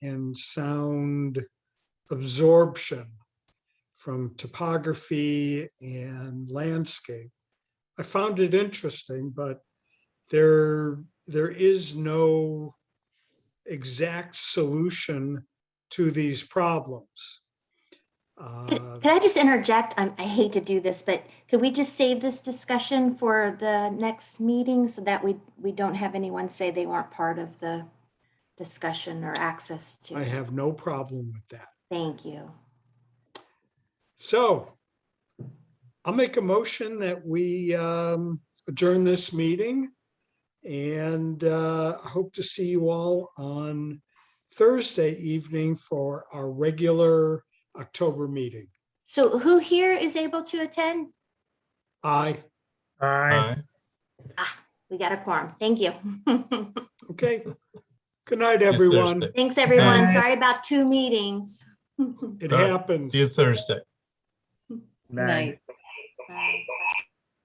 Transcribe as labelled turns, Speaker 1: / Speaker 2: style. Speaker 1: and sound absorption from topography and landscape. I found it interesting, but there, there is no exact solution to these problems. Uh,
Speaker 2: Could I just interject? Um, I hate to do this, but could we just save this discussion for the next meeting so that we, we don't have anyone say they weren't part of the discussion or access
Speaker 1: I
Speaker 2: to?
Speaker 1: have no problem with that.
Speaker 2: Thank you.
Speaker 1: So I'll make a motion that we um, adjourn this meeting. And uh, I hope to see you all on Thursday evening for our regular October meeting.
Speaker 2: So who here is able to attend?
Speaker 1: Aye,
Speaker 3: Aye.
Speaker 2: We got a quorum. Thank you.
Speaker 1: okay. Good night,
Speaker 3: See you
Speaker 1: everyone.
Speaker 3: Thursday.
Speaker 2: Thanks, everyone.
Speaker 4: Aye.
Speaker 2: Sorry about two meetings.
Speaker 1: It
Speaker 3: All right.
Speaker 1: happens.
Speaker 3: See you Thursday.
Speaker 4: Night.